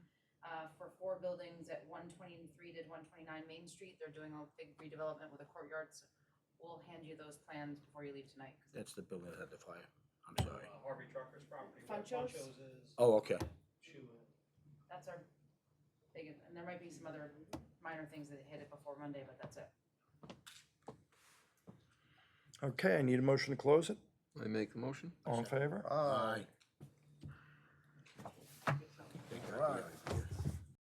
uh, buildings at one twenty-three to one twenty-nine Main Street. They're doing a big redevelopment with a courtyard. So We'll hand you those plans before you leave tonight. 'cause That's the building that had the fire. I'm sorry. uh, Harvey Trucker's property, where Funchos? Funchos is, Oh, okay. Shoe is. That's our big, and there might be some other minor things that hit it before Monday, but that's it. Okay, I need a motion to close it. I make the motion? Ah, All in favor? Aye. Aye. Take that, Right. yeah.